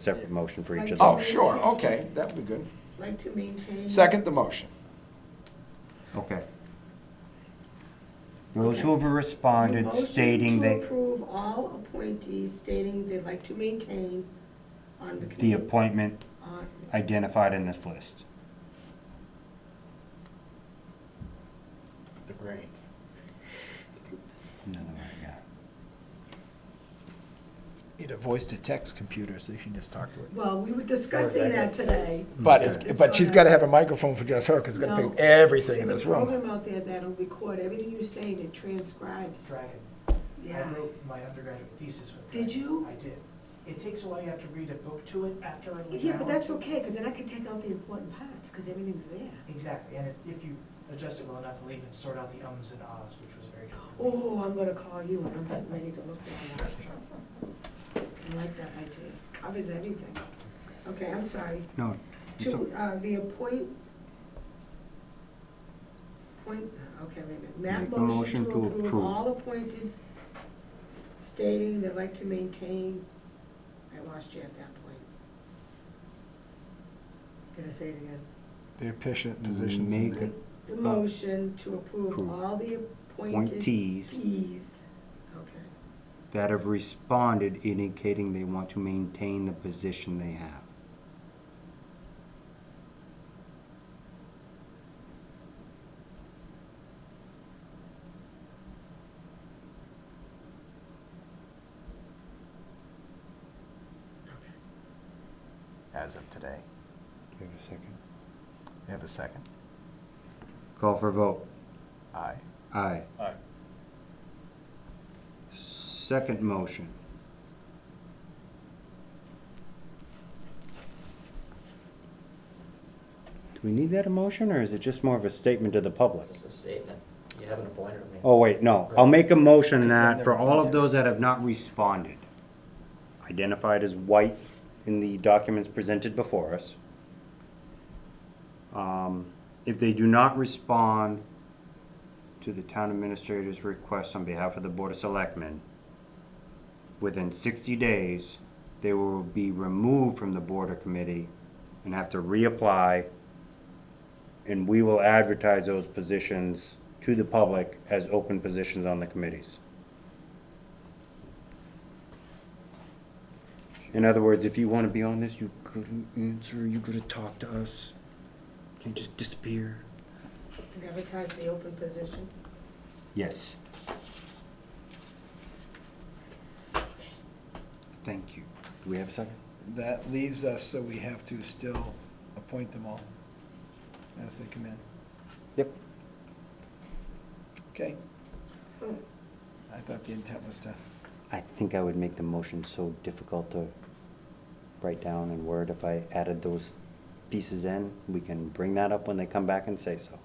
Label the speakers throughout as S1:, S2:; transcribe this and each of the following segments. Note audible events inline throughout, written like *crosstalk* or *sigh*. S1: separate motion for each of
S2: Oh,
S1: those.
S2: sure, okay, that'd be good.
S3: Like to maintain.
S2: Second the motion.
S1: Okay. Those who have responded
S3: Motion
S1: stating
S3: To
S1: they,
S3: approve all appointees stating they'd like to maintain on the committee.
S1: the appointment
S3: on-
S1: identified in this list.
S4: The brains.
S1: Another way, yeah.
S5: Need a voice to text computer so you can just talk to it.
S3: Well, we were discussing that today.
S5: But it's, but she's gotta have a microphone for just her, because it's gonna pick
S3: No.
S5: everything in this
S3: There's a
S5: room.
S3: program out there that'll record everything you're saying, it transcribes.
S6: Dragon.
S3: Yeah.
S6: I wrote my undergraduate thesis with
S3: Did
S6: Dragon.
S3: you?
S6: I did. It takes a while, you have to read a book to it after. an
S3: Yeah,
S6: hour
S3: but
S6: or
S3: that's
S6: two.
S3: okay, because then I can take out the important parts, because everything's there.
S6: Exactly, and if, if you adjust it well enough, it'll even sort out the ums and ahs, which was very helpful.
S3: Oh, I'm gonna call you, and I'm getting ready to look that up. I like that idea, covers everything. Okay, I'm sorry.
S1: No.
S3: To, uh, the appoint, point, okay, wait a minute,
S1: Make
S3: that
S1: a
S3: motion to approve
S1: approve.
S3: all appointed stating they'd like to maintain, I lost you at that point. Gonna say it again.
S5: Their position- positions in
S1: Make
S5: there.
S3: The motion to approve
S1: Approve.
S3: all the appointed
S1: Appointees
S3: tees, okay.
S1: that have responded indicating they want to maintain the position they have.
S5: As of today.
S1: Do you have a second?
S5: You have a second?
S1: Call for vote.
S5: Aye.
S1: Aye.
S4: Aye.
S1: Second motion. Do we need that a motion, or is it just more of a statement to the public?
S7: It's a statement. You haven't appointed me.
S1: Oh, wait, no. I'll make a motion
S5: Because then
S1: that for
S5: they're
S1: all of
S5: appointed.
S1: those that have not responded, identified as white in the documents presented before us, um, if they do not respond to the town administrator's request on behalf of the Board of Selectmen, within sixty days, they will be removed from the Board or Committee and have to reapply and we will advertise those positions to the public as open positions on the committees. In other words, if you want to be on this, you couldn't answer, you could have talked to us. Can't just disappear.
S3: And Advertise the open position.
S1: Yes. Thank you. Do we have a second?
S5: That leaves us, so we have to still appoint them all as they come in.
S1: Yep.
S5: Okay,
S3: Oh,
S5: I thought the intent was to,
S1: I think I would make the motion so difficult to write down in Word if I added those pieces in. We can bring that up when they come back and say so.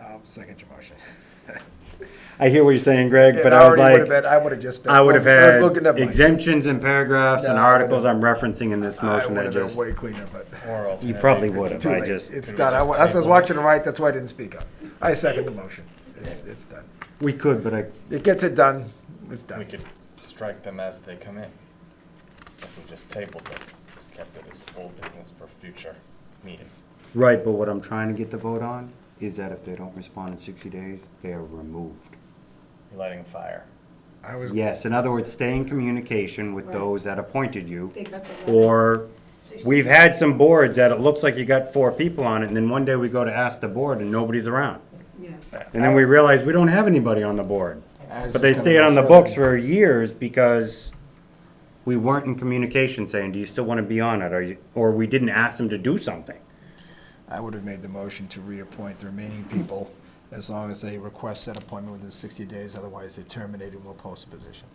S5: I'll second your *laughs* motion.
S1: I hear what you're saying, Greg,
S5: It
S1: but I was
S5: already would've
S1: like,
S5: been- I would've just been.
S1: I would have
S5: I was looking
S1: had
S5: up my-
S1: exemptions and paragraphs and
S5: No, I would've-
S1: articles I'm referencing in this
S5: I
S1: motion
S5: would
S1: that
S5: have
S1: just,
S5: been way cleaner, but.
S1: you probably
S5: It's
S1: would have.
S5: too
S1: I
S5: late.
S1: just,
S5: It's
S4: Can we
S5: done. I
S4: just
S5: wa- I was
S4: table it?
S5: watching the right, that's why I didn't speak up. I second the motion. It's, it's done.
S1: we could, but I,
S5: It gets it done, it's
S4: We
S5: done.
S4: could strike them as they come in. If we just tabled this, just kept it as old business for future meetings.
S1: right, but what I'm trying to get the vote on is that if they don't respond in sixty days, they are removed.
S4: You're lighting a fire.
S5: I was,
S1: Yes, in other words, stay in communication with those that appointed you.
S3: They got the letter.
S1: Or, we've had some boards that it looks like you got four people on it, and then one day we go to ask the board and nobody's around.
S3: Yeah.
S1: And then we realize we don't have anybody on the board.
S5: I was
S1: But
S5: just
S1: they
S5: gonna
S1: stayed on the
S5: refer
S1: books
S5: them.
S1: for years because we weren't in communication saying, do you still want to be on it? Or you, or we didn't ask them to do something.
S5: I would have made the motion to reappoint the remaining people as long as they request that appointment within sixty days, otherwise they're terminated and we'll post the position.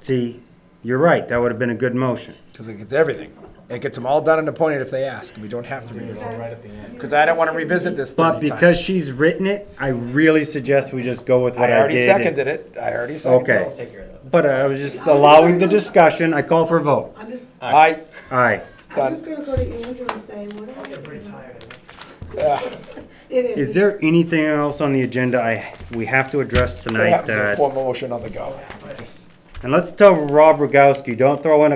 S1: See, you're right, that would have been a good motion.
S5: Because it gets everything. It gets them all done and appointed if they ask, and we don't have to revisit
S3: Because
S5: it.
S4: at the end.
S3: you
S5: Because I don't want to
S3: guys can
S5: revisit
S3: meet-
S5: this
S1: But
S5: thirty times.
S1: because she's written it, I really suggest we just go with what
S5: I
S1: I
S5: already
S1: did.
S5: seconded it, I already seconded it.
S1: Okay.
S7: I'll take care of that.
S1: But I was just allowing the discussion, I call for a vote.
S3: I'm just,
S5: I,
S1: Aye.
S3: I'm just gonna go to Andrew and say, what are
S6: I
S3: you
S6: get pretty
S3: doing?
S6: tired, I think.
S3: It is.
S1: Is there anything else on the agenda I, we have to address
S5: what
S1: tonight
S5: happens to a
S1: that?
S5: formal motion on the go? Just-
S1: And let's tell Rob Rogowski, don't throw in a